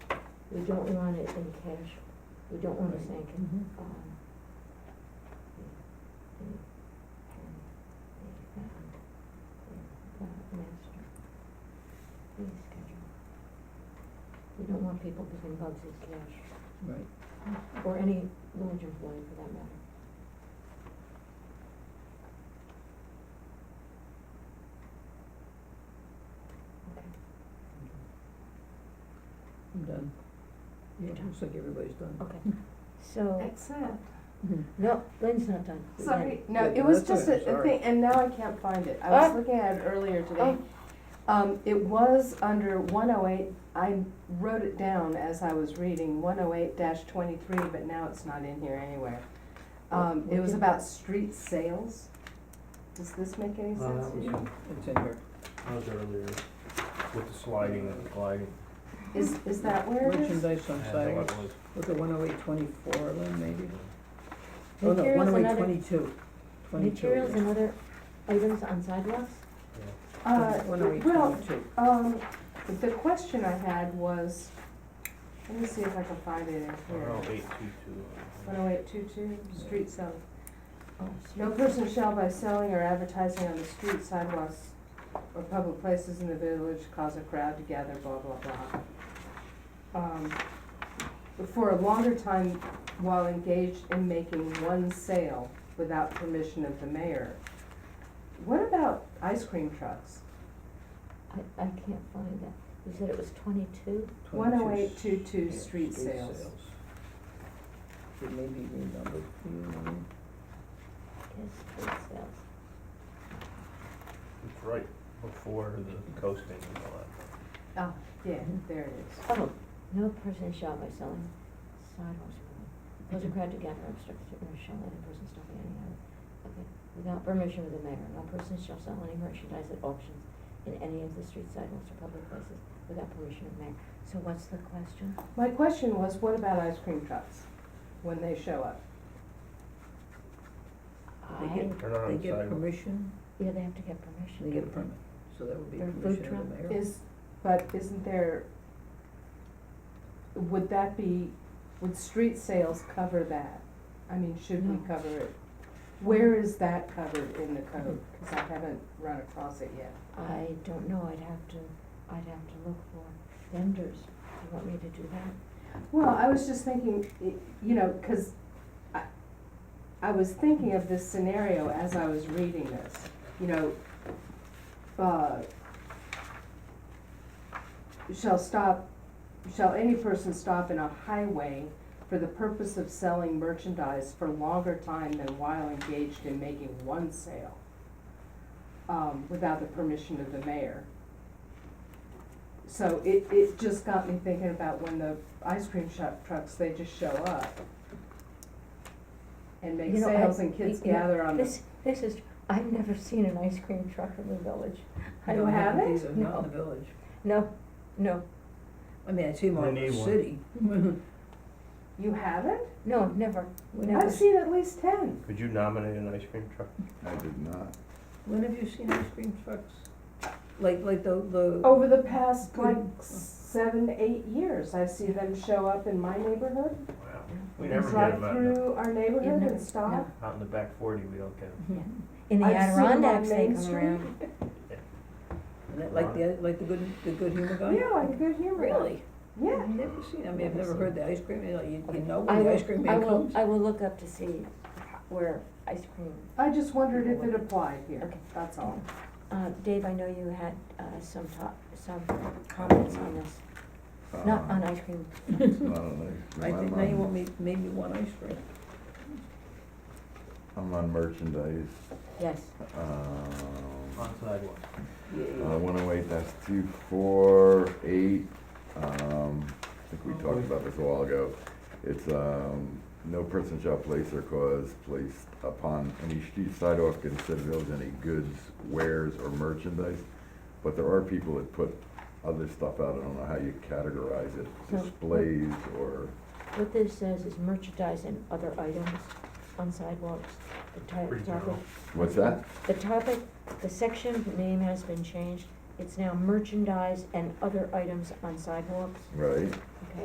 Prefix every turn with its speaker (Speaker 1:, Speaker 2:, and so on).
Speaker 1: We don't want it in cash, we don't want to sink it.
Speaker 2: Mhm.
Speaker 1: Um, the- the- and the- and the master fee schedule. We don't want people giving Bugsy's cash,
Speaker 2: Right.
Speaker 1: or any village employee for that matter. Okay.
Speaker 2: I'm done. Yeah,
Speaker 1: You're done.
Speaker 2: looks like everybody's done.
Speaker 1: Okay, so,
Speaker 3: That's it.
Speaker 2: Mhm.
Speaker 1: no, Lynn's not done. Lynn.
Speaker 3: Sorry, no,
Speaker 2: Yeah,
Speaker 3: it was
Speaker 2: that's
Speaker 3: just
Speaker 2: it,
Speaker 3: a, a
Speaker 2: sorry.
Speaker 3: thing, and now I can't find it. I was
Speaker 1: Ah.
Speaker 3: looking at it earlier today.
Speaker 1: Oh.
Speaker 3: Um, it was under one oh eight, I wrote it down as I was reading, one oh eight twenty-three, but now it's not in here anywhere. Um,
Speaker 1: We
Speaker 3: it was
Speaker 1: can-
Speaker 3: about street sales. Does this make any
Speaker 4: Uh,
Speaker 3: sense
Speaker 4: that
Speaker 3: to
Speaker 4: was-
Speaker 3: you?
Speaker 2: It's in here.
Speaker 4: That was earlier, with the sliding and the gliding.
Speaker 3: Is, is that where it is?
Speaker 2: Merchandise on
Speaker 4: I think
Speaker 2: sidewalks,
Speaker 4: it was.
Speaker 2: look at one oh eight twenty-four, then maybe? Oh, no,
Speaker 1: Materials
Speaker 2: one oh
Speaker 1: and
Speaker 2: eight
Speaker 1: other,
Speaker 2: twenty-two. Twenty-two.
Speaker 1: materials and other items on sidewalks?
Speaker 3: Uh,
Speaker 2: One oh eight
Speaker 3: well,
Speaker 2: twenty-two.
Speaker 3: um, the question I had was, let me see if I can find it in
Speaker 4: Or
Speaker 3: here.
Speaker 4: no, 822.
Speaker 3: One oh eight two two, street sales.
Speaker 1: Oh,
Speaker 3: No person shall by selling or advertising on the street, sidewalks, or public places in the village cause a crowd to gather, blah, blah, blah. Um, For a longer time while engaged in making one sale without permission of the mayor. What about ice cream trucks?
Speaker 1: I, I can't find that. You said it was twenty-two?
Speaker 3: One oh eight two two, street sales.
Speaker 2: It may be renumbered, Hmm,
Speaker 1: Yes, street sales.
Speaker 4: It's right before the coasting and all that.
Speaker 3: Ah, yeah, there it is.
Speaker 1: Oh, no person shall by selling sidewalks, cause a crowd to gather, obstruct, or shall let a person stop at any hour. Okay, without permission of the mayor, no person shall sell any merchandise at auctions in any of the street sidewalks or public places without permission of mayor. So what's the question?
Speaker 3: My question was, what about ice cream trucks when they show up?
Speaker 2: They
Speaker 1: I-
Speaker 2: get-
Speaker 4: Turn on
Speaker 2: They
Speaker 4: the
Speaker 2: get
Speaker 4: sidewalk.
Speaker 2: permission,
Speaker 1: Yeah, they have to get permission.
Speaker 2: they get a permit, so that would be
Speaker 1: Their food
Speaker 2: permission
Speaker 1: truck
Speaker 2: of the mayor.
Speaker 3: Is, but isn't there, would that be, would street sales cover that? I mean, should we
Speaker 1: No.
Speaker 3: cover it? Where is that covered in the code? Cause I haven't run across it yet.
Speaker 1: I don't know, I'd have to, I'd have to look for vendors. Do you want me to do that?
Speaker 3: Well, I was just thinking, y- you know, cause I, I was thinking of this scenario as I was reading this, you know, uh, shall stop, shall any person stop in a highway for the purpose of selling merchandise for longer time than while engaged in making one sale, um, without the permission of the mayor. So it, it just got me thinking about when the ice cream shop trucks, they just show up and make
Speaker 1: You know, I-
Speaker 3: sales and kids
Speaker 1: you know,
Speaker 3: gather on the
Speaker 1: This, this is, I've never seen an ice cream truck in the village.
Speaker 3: I don't
Speaker 2: Not
Speaker 3: have it?
Speaker 2: either, Not in the village,
Speaker 1: No, no,
Speaker 2: I mean, I see more
Speaker 4: We
Speaker 2: in the
Speaker 4: need one.
Speaker 2: city.
Speaker 3: You haven't?
Speaker 1: no, never, never.
Speaker 3: I've seen at least ten.
Speaker 4: Could you nominate an ice cream truck?
Speaker 5: I did not.
Speaker 2: When have you seen ice cream trucks? Like, like the, the.
Speaker 3: Over the past like
Speaker 2: Good.
Speaker 3: seven, eight years, I see them show up in my neighborhood,
Speaker 4: Wow, we never get
Speaker 3: drive
Speaker 4: them out in the,
Speaker 3: through our neighborhood
Speaker 1: never-
Speaker 3: and stop.
Speaker 1: no.
Speaker 4: out in the back forty, we don't get them.
Speaker 1: In the
Speaker 3: I've seen 'em on
Speaker 1: Adirondacks, they
Speaker 3: Main
Speaker 1: come
Speaker 3: Street.
Speaker 1: around.
Speaker 2: And that- Like the, like the good, the good humor guy?
Speaker 3: Yeah, like Good Humor.
Speaker 2: Really?
Speaker 3: Yeah.
Speaker 2: I've never seen, I mean, I've never heard the ice cream, you know, you, you know
Speaker 1: I
Speaker 2: when the
Speaker 1: will,
Speaker 2: ice cream
Speaker 1: I
Speaker 2: man
Speaker 1: will,
Speaker 2: comes.
Speaker 1: I will look up to see where ice cream.
Speaker 3: I just wondered if it applied here,
Speaker 1: Okay.
Speaker 3: that's all.
Speaker 1: Uh, Dave, I know you had, uh, some talk, some comments on this, not
Speaker 5: Um,
Speaker 1: on ice cream.
Speaker 5: Not on ice
Speaker 2: I
Speaker 5: cream.
Speaker 2: think
Speaker 5: I'm
Speaker 2: now you
Speaker 5: on-
Speaker 2: want me, made me want ice cream.
Speaker 5: I'm on merchandise,
Speaker 1: Yes,
Speaker 5: um,
Speaker 4: On sidewalk.
Speaker 5: uh, one oh eight, that's two, four, eight, um, I think we talked about this a while ago. It's, um, no person shall place or cause placed upon any street sidewalk in said village any goods, wares, or merchandise. But there are people that put other stuff out, I don't know how you categorize it,
Speaker 1: So-
Speaker 5: displays or,
Speaker 1: what this says is merchandise and other items on sidewalks, the type,
Speaker 4: Pretty
Speaker 1: topic.
Speaker 4: general.
Speaker 5: what's that?
Speaker 1: The topic, the section name has been changed, it's now merchandise and other items on sidewalks,
Speaker 5: Right?
Speaker 1: okay?